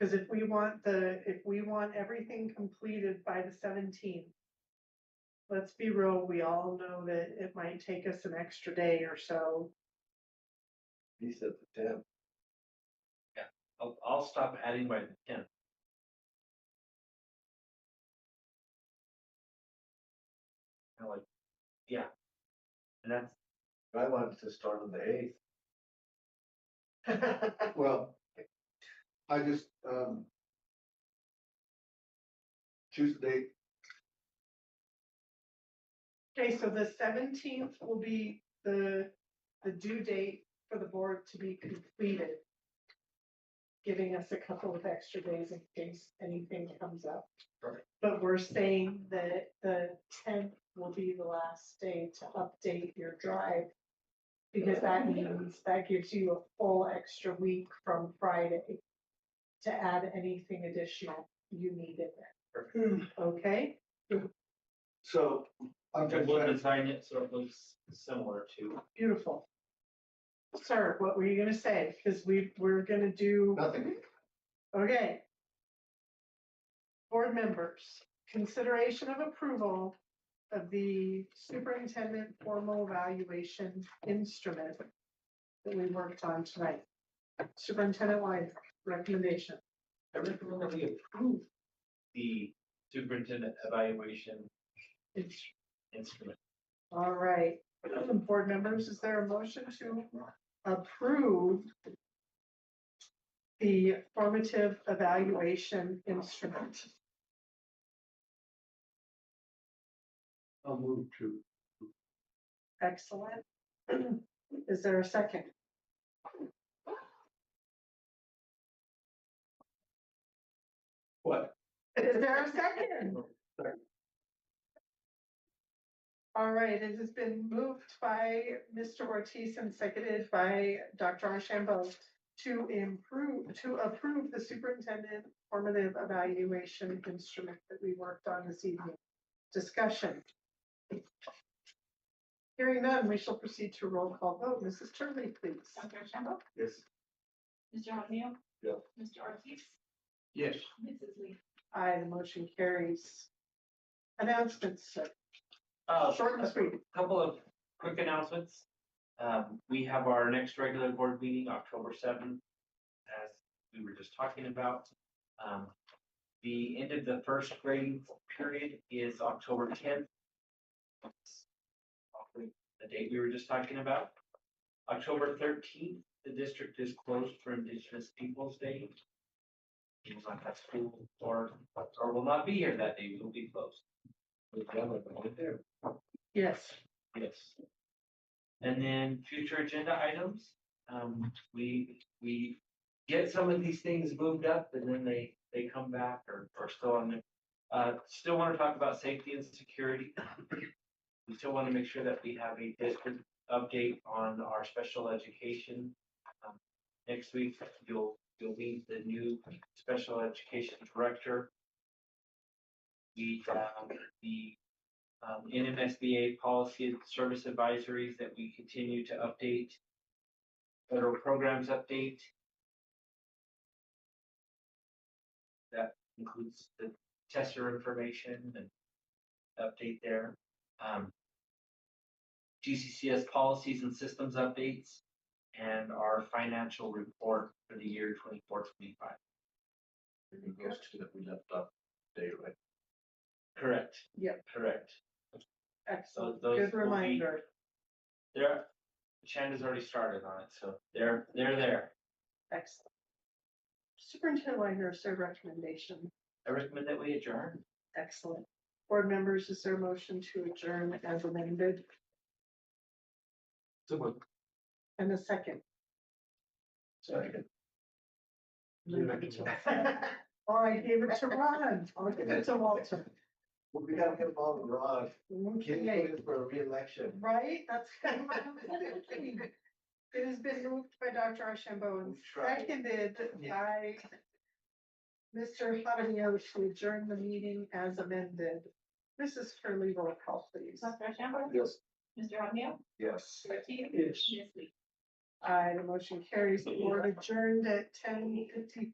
Cause if we want the, if we want everything completed by the seventeenth. Let's be real, we all know that it might take us an extra day or so. He said the tenth. I'll, I'll stop adding by the tenth. I like, yeah. And that's, I wanted to start on the eighth. Well, I just, um. Choose the date, Okay, so the seventeenth will be the, the due date for the board to be completed. Giving us a couple of extra days in case anything comes up. Right. But we're saying that the tenth will be the last day to update your drive. Because that means, that gives you a full extra week from Friday to add anything additional you need in there. Hmm, Okay? so I'm and just we'll trying, design it so it looks similar to, Beautiful. Sir, what were you gonna say? Cause we, we're gonna do, nothing, okay. Board members, consideration of approval of the superintendent formal evaluation instrument that we worked on tonight. Superintendent Lyons, recommendation. I recommend that we approve the superintendent evaluation It's, instrument. all right. Board members, is there a motion to approve the formative evaluation instrument? I'll move to, Excellent. Is there a second? what, Is there a second? All right, it has been moved by Mr. Ortiz and seconded by Dr. Archambeau to improve, to approve the superintendent formative evaluation instrument that we worked on this evening. Discussion. Hearing none, we shall proceed to roll call vote. Mrs. Turley, please. Dr. Shambo? yes, Mr. O'Neil? Yeah. Mr. Ortiz? Yes. Mrs. Lee? Aye, the motion carries. Announcements, sir. Uh, short and sweet. couple of quick announcements. Um, we have our next regular board meeting, October seventh, as we were just talking about. Um, the end of the first grade period is October tenth. The date we were just talking about. October thirteenth, the district is closed for Indigenous Peoples' Day. We will not have school or, or will not be here that day, we will be closed. We've done it, we're there. Yes. Yes. And then future agenda items, um, we, we get some of these things moved up and then they, they come back or, or still on there. Uh, still wanna talk about safety and security. We still wanna make sure that we have a district update on our special education. Um, Next week, you'll, you'll meet the new special education director. We, um, the um, NMSBA policy and service advisories that we continue to update. Federal programs update. That includes the tester information and update there. Um, GCCS policies and systems updates and our financial report for the year 24-25. it goes to that we left off day, right? Correct. Yep. Correct. Excellent, those good will be- reminder. There, Shanda's already started on it, so they're, they're there. Excellent. Superintendent Wagner, is there a recommendation? I recommend that we adjourn. Excellent. Board members, is there a motion to adjourn as amended Someone, and a second? second. You make it. Oh, I gave it to Ron. I'll give it to Walter. Well, we gotta get involved in Rod, can you Okay, do this for a reelection? right? That's kind of what I was thinking. It has been moved by Dr. Ashambo and We tried. seconded by Mr. Havanio to adjourn the meeting as amended. Mrs. Curley, roll call please. Dr. Shambo? Yes. Mr. O'Neil? Yes. Mr. Ortiz? Yes. Ms. Lee? Aye, the motion carries. The board adjourned at ten fifty